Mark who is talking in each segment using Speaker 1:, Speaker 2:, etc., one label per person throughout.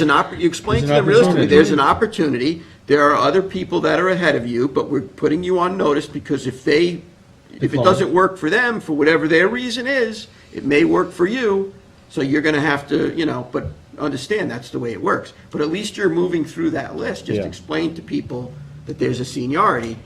Speaker 1: an oppor, you explain to
Speaker 2: There's an
Speaker 1: them realistically,
Speaker 2: opportunity.
Speaker 1: there's an opportunity, there are other people that are ahead of you, but we're putting you on notice because if they, if it
Speaker 2: Decline.
Speaker 1: doesn't work for them, for whatever their reason is, it may work for you, so you're gonna have to, you know, but understand that's the way it works. But at least you're moving through that list, just
Speaker 2: Yeah.
Speaker 1: explain to people that there's a seniority,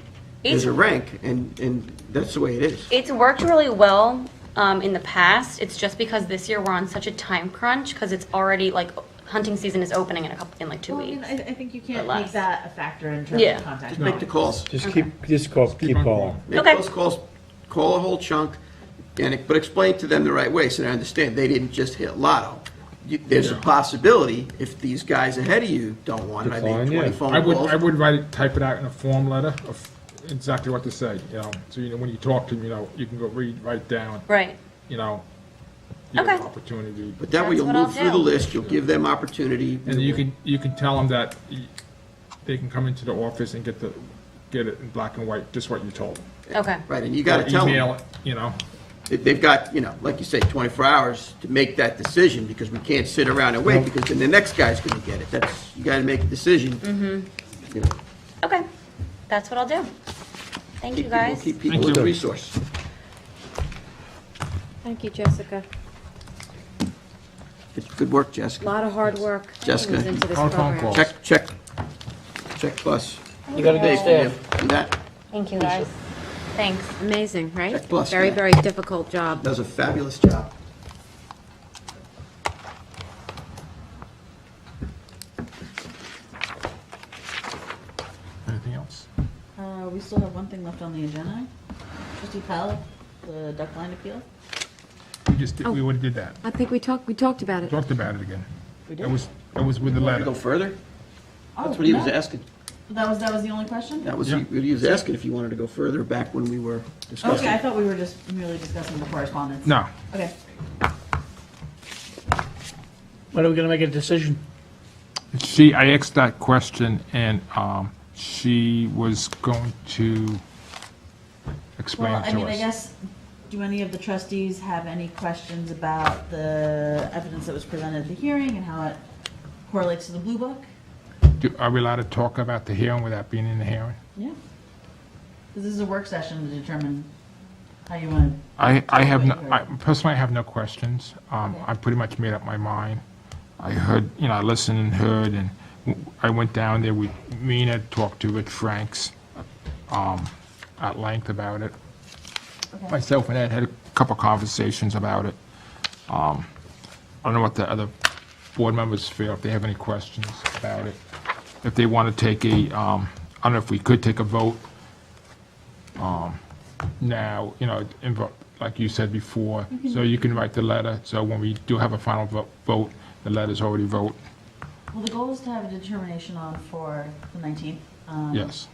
Speaker 1: there's a rank, and, and that's the way it is.
Speaker 3: It's worked really well um, in the past. It's just because this year we're on such a time crunch because it's already like hunting season is opening in a couple in like two
Speaker 4: Well, I mean,
Speaker 3: weeks.
Speaker 4: I, I think you can't
Speaker 3: less.
Speaker 4: make that a factor in terms
Speaker 3: Yeah.
Speaker 4: of contact.
Speaker 1: Just make the calls.
Speaker 2: Just keep, just call, keep calling.
Speaker 1: Make
Speaker 3: Okay.
Speaker 1: those calls, call a whole chunk, and, it- but explain to them the right way, so they understand, they didn't just hit lotto. You- There's a possibility, if these guys ahead of you don't want it, I
Speaker 2: Decline,
Speaker 1: made
Speaker 2: yeah.
Speaker 1: twenty
Speaker 5: I
Speaker 1: phone
Speaker 5: would, I
Speaker 1: calls.
Speaker 5: would write it, type it out in a form letter of exactly what to say, you know, so you know, when you talk to them, you know, you can go read, write down,
Speaker 3: Right.
Speaker 5: you know, you have
Speaker 3: Okay.
Speaker 5: an opportunity.
Speaker 1: But that way
Speaker 3: That's
Speaker 1: you'll
Speaker 3: what I'll
Speaker 1: move through the
Speaker 3: do.
Speaker 1: list, you'll give them opportunity.
Speaker 5: And you can, you can tell them that y- they can come into the office and get the, get it in black and white, just what you told them.
Speaker 3: Okay.
Speaker 1: Right, and you gotta
Speaker 5: Or
Speaker 1: tell
Speaker 5: Email
Speaker 1: them,
Speaker 5: it, you know,
Speaker 1: that they've got, you know, like you say, twenty-four hours to make that decision, because we can't sit around and wait, because then the next guy's gonna get it, that's, you gotta make a decision.
Speaker 3: Mm-hmm.
Speaker 1: You know,
Speaker 3: Okay. That's what I'll do.
Speaker 1: keep
Speaker 3: Thank you
Speaker 1: people-
Speaker 3: guys.
Speaker 1: Keep people
Speaker 5: Thank
Speaker 1: as a
Speaker 5: you.
Speaker 1: resource.
Speaker 6: Thank you, Jessica.
Speaker 1: Good- Good work,
Speaker 6: A
Speaker 1: Jessica.
Speaker 6: lot of hard work goes
Speaker 1: Jessica.
Speaker 6: into this
Speaker 5: Our phone
Speaker 6: program.
Speaker 5: call.
Speaker 1: Check, check, check plus.
Speaker 3: You gotta go
Speaker 1: Yeah, and that,
Speaker 3: Thank you guys. Thanks.
Speaker 6: Amazing, right?
Speaker 1: Check plus,
Speaker 6: Very,
Speaker 1: yeah.
Speaker 6: very difficult job.
Speaker 1: does a fabulous job.
Speaker 5: anything else?
Speaker 4: Uh, we still have one thing left on the agenda. Trustee Powell, the duck line appeal.
Speaker 5: We just, did- we would've did that,
Speaker 6: I think we talked, we talked about it.
Speaker 5: talked about it again.
Speaker 4: We did?
Speaker 5: That was, that was with the
Speaker 1: Want to
Speaker 5: letter.
Speaker 1: go further?
Speaker 4: Oh,
Speaker 1: That's what he was
Speaker 4: no.
Speaker 1: asking.
Speaker 4: That was, that was the only question?
Speaker 1: That was,
Speaker 5: Yeah.
Speaker 1: what he was asking if you wanted to go further back when we were discussing.
Speaker 4: Okay, I thought we were just merely discussing the correspondence.
Speaker 5: No,
Speaker 4: Okay.
Speaker 7: When are we going to make a decision?
Speaker 5: she, I asked that question and, um, she was going to explain
Speaker 4: Well,
Speaker 5: it to us.
Speaker 4: I mean, I guess, do any of the trustees have any questions about the evidence that was presented at the hearing and how it correlates to the Blue Book?
Speaker 5: Do- Are we allowed to talk about the hearing without being in the hearing?
Speaker 4: Yeah. 'Cause This is a work session to determine how you want to
Speaker 5: I, I have, no-
Speaker 4: Totally
Speaker 5: I-
Speaker 4: heard.
Speaker 5: personally, I have no questions. Um, I pretty much made up my mind. I heard, you know, I listened and heard, and w- I went down there with Mina, talked to Rich Franks um, at length about it. Myself and Ed had a couple conversations about it. Um, I don't know what the other board members feel, if they have any questions about it. If they want to take a, um, I don't know if we could take a vote now, you know, invo- like you said before, so you can write the letter, so when we do have a final vo- vote, the letter's already vote,
Speaker 4: Well, the goal is to have a determination on for the 19th. Um,
Speaker 5: yes.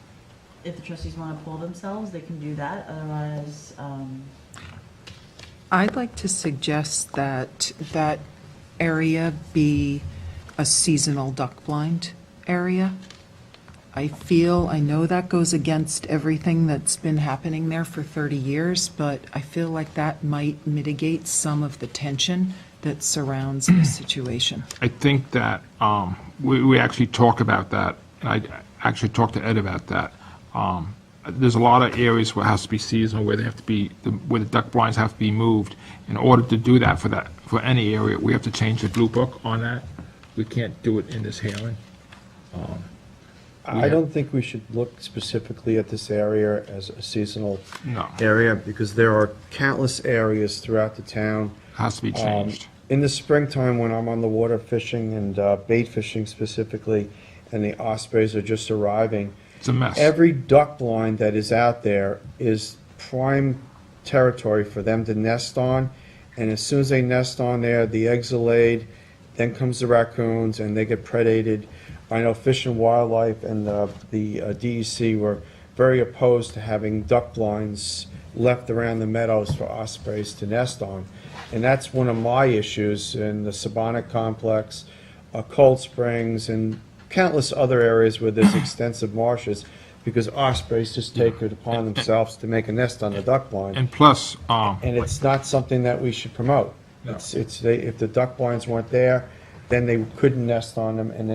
Speaker 4: If the trustees want to pull themselves, they can do that, otherwise, um,
Speaker 8: I'd like to suggest that that area be a seasonal duck blind area. I feel, I know that goes against everything that's been happening there for 30 years, but I feel like that might mitigate some of the tension that surrounds this situation.
Speaker 5: I think that, um, we, we actually talk about that, and I actually talked to Ed about that. Um, there's a lot of areas where it has to be seasonal, where they have to be, where the duck blinds have to be moved. In order to do that for that, for any area, we have to change the blue book on that. We can't do it in this hearing.
Speaker 2: I don't think we should look specifically at this area as a seasonal
Speaker 5: No.
Speaker 2: area, because there are countless areas throughout the town.
Speaker 5: Has to be
Speaker 2: Um,
Speaker 5: changed.
Speaker 2: In the springtime, when I'm on the water fishing and uh, bait fishing specifically, and the ospreys are just arriving,
Speaker 5: It's a mess.
Speaker 2: every duck blind that is out there is prime territory for them to nest on. And as soon as they nest on there, the eggs are laid, then comes the raccoons, and they get predated. I know Fish and Wildlife and uh, the uh, DEC were very opposed to having duck blinds left around the meadows for ospreys to nest on. And that's one of my issues in the Sabonic complex, uh, Cold Springs, and countless other areas where there's extensive marshes, because ospreys just take it upon themselves to make a nest on the duck blind.
Speaker 5: And plus, um,
Speaker 2: And it's not something that we should promote. It's, it's, they- if the duck blinds weren't there, then they couldn't nest on them, and